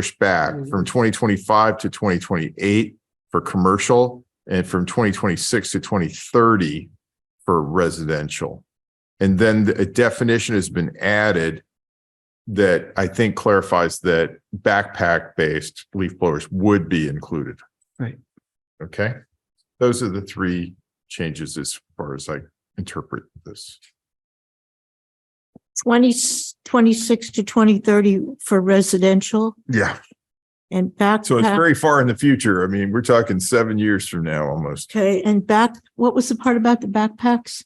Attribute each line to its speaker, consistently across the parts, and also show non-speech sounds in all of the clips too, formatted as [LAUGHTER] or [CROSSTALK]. Speaker 1: pushed back from twenty twenty-five to twenty twenty-eight for commercial and from twenty twenty-six to twenty thirty for residential. And then a definition has been added that I think clarifies that backpack-based leaf blowers would be included.
Speaker 2: Right.
Speaker 1: Okay, those are the three changes as far as I interpret this.
Speaker 3: 20 26 to twenty thirty for residential
Speaker 1: Yeah.
Speaker 3: and back.
Speaker 1: So it's very far in the future. I mean, we're talking seven years from now almost.
Speaker 3: Okay, and back, what was the part about the backpacks?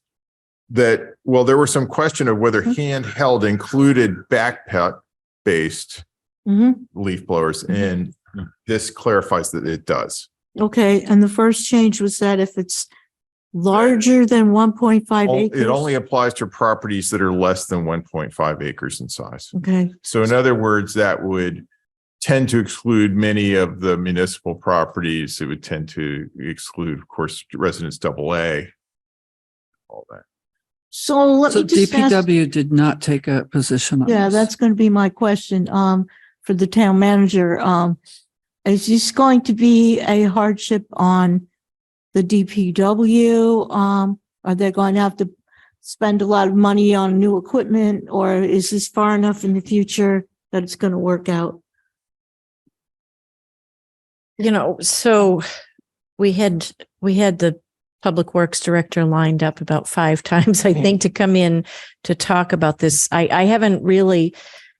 Speaker 1: that, well, there was some question of whether
Speaker 3: Mm-hmm.
Speaker 1: handheld included backpack based
Speaker 3: hmm
Speaker 1: leaf blowers and this clarifies that it does.
Speaker 3: okay, and the first change was that if it's larger than one point five
Speaker 1: Al-
Speaker 3: acres.
Speaker 1: Oh, It only applies to properties that are less than one point five acres in size.
Speaker 3: Okay,
Speaker 1: So in other words, that would tend to exclude many of the municipal properties. It would tend to exclude, of course, residents double A. All that.
Speaker 3: so let
Speaker 2: So
Speaker 3: me just ask,
Speaker 2: DPW did not take a position on this.
Speaker 3: yeah, that's going to be my question, um, for the town manager, um, is this going to be a hardship on the DPW? Um, are they going to have to spend a lot of money on new equipment or is this far enough in the future that it's going to work out?
Speaker 4: You know, so we had, we had the Public Works Director lined up about five [LAUGHS] times, I think, to come in to talk about this. I, I haven't really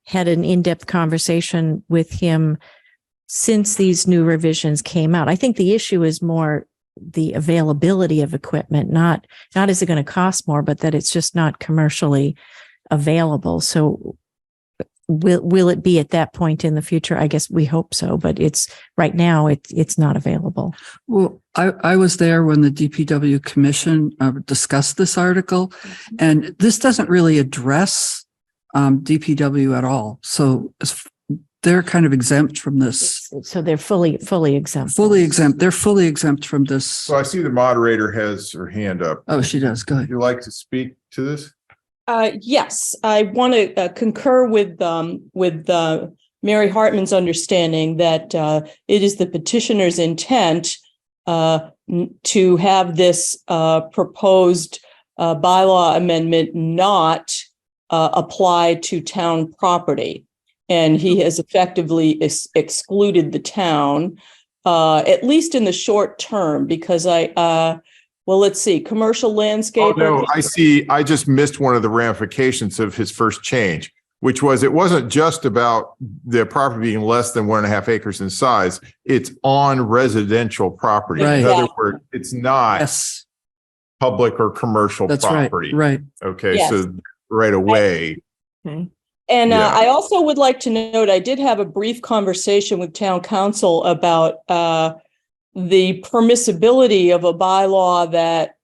Speaker 4: had an in-depth conversation with him since these new revisions came out. I think the issue is more the availability of equipment, not, not is it going to cost more, but that it's just not commercially available. So will, will it be at that point in the future? I guess we hope so, but it's, right now it's it's not available.
Speaker 2: Well, I, I was there when the DPW commission uh, discussed this article
Speaker 3: Mm-hmm.
Speaker 2: and this doesn't really address um, DPW at all. So it's- they're kind of exempt from this,
Speaker 4: So they're fully fully exempt.
Speaker 2: fully exempt. They're fully exempt from this.
Speaker 1: So I see the moderator has her hand up.
Speaker 2: Oh, she does. Go
Speaker 1: Would
Speaker 2: ahead.
Speaker 1: you like to speak to this?
Speaker 5: Uh, yes, I want to uh, concur with, um, with, uh, Mary Hartman's understanding that, uh, it is the petitioner's intent, uh, n- to have this, uh, proposed, uh, bylaw amendment not, uh, apply to town property. And he has effectively ex- excluded the town, uh, at least in the short term, because I, uh, well, let's see, commercial
Speaker 1: Oh,
Speaker 5: landscape.
Speaker 1: no, I see. I just missed one of the ramifications of his first change, which was it wasn't just about the property being less than one and a half acres in size. It's on residential property. In
Speaker 2: Right.
Speaker 1: other words, it's not
Speaker 2: Yes,
Speaker 1: public or commercial
Speaker 2: that's right.
Speaker 1: property.
Speaker 2: Right.
Speaker 1: Okay,
Speaker 5: Yes.
Speaker 1: so right away,
Speaker 5: And uh,
Speaker 1: Yeah.
Speaker 5: I also would like to note, I did have a brief conversation with town council about uh, the permissibility of a bylaw that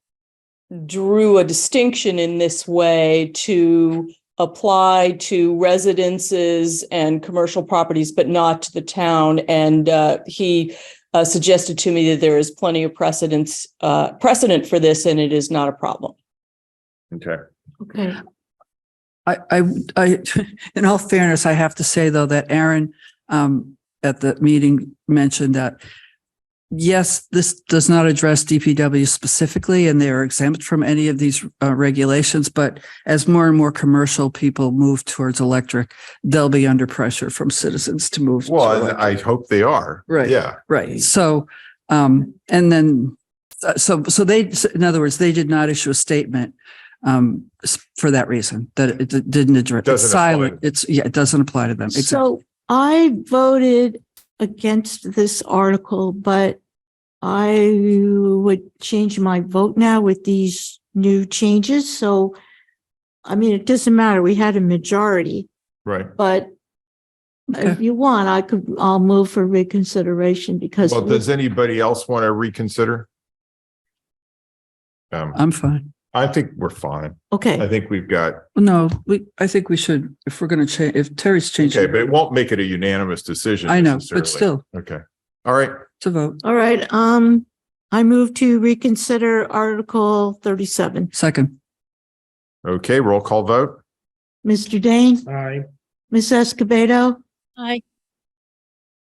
Speaker 5: drew a distinction in this way to apply to residences and commercial properties, but not to the town. And uh, he uh, suggested to me that there is plenty of precedence, uh, precedent for this, and it is not a problem.
Speaker 1: okay.
Speaker 3: Okay.
Speaker 2: I, I, I, [LAUGHS] in all fairness, I have to say though that Aaron, um, at the meeting mentioned that yes, this does not address DPW specifically and they are exempt from any of these uh, regulations. But as more and more commercial people move towards electric, they'll be under pressure from citizens to move. to
Speaker 1: Well, and
Speaker 2: electric.
Speaker 1: I hope they are.
Speaker 2: Right.
Speaker 1: Yeah.
Speaker 2: Right. So, um, and then, uh, so, so they, so in other words, they did not issue a statement, um, s- for that reason, that it d- didn't address.
Speaker 1: Doesn't
Speaker 2: It's
Speaker 1: apply.
Speaker 2: silent. It's, yeah, it doesn't apply to them. Exactly.
Speaker 3: So I voted against this article, but I would change my vote now with these new changes. So, I mean, it doesn't matter. We had a majority,
Speaker 1: Right.
Speaker 3: but if
Speaker 2: Okay.
Speaker 3: you want, I could, I'll move for reconsideration because
Speaker 1: Well, does anybody else want to reconsider? Um,
Speaker 2: I'm fine.
Speaker 1: I think we're fine. I
Speaker 3: Okay,
Speaker 1: think we've got
Speaker 2: No, we, I think we should, if we're going to change, if Terry's changing.
Speaker 1: Okay, but it won't make it a unanimous decision.
Speaker 2: I know,
Speaker 1: necessarily.
Speaker 2: but still
Speaker 1: Okay. All right.
Speaker 2: to vote.
Speaker 3: all right. Um, I move to reconsider Article thirty-seven.
Speaker 2: Second,
Speaker 1: Okay, roll call vote.
Speaker 3: Mr. Dane,
Speaker 6: Aye.
Speaker 3: Ms. Escobedo,
Speaker 4: Aye.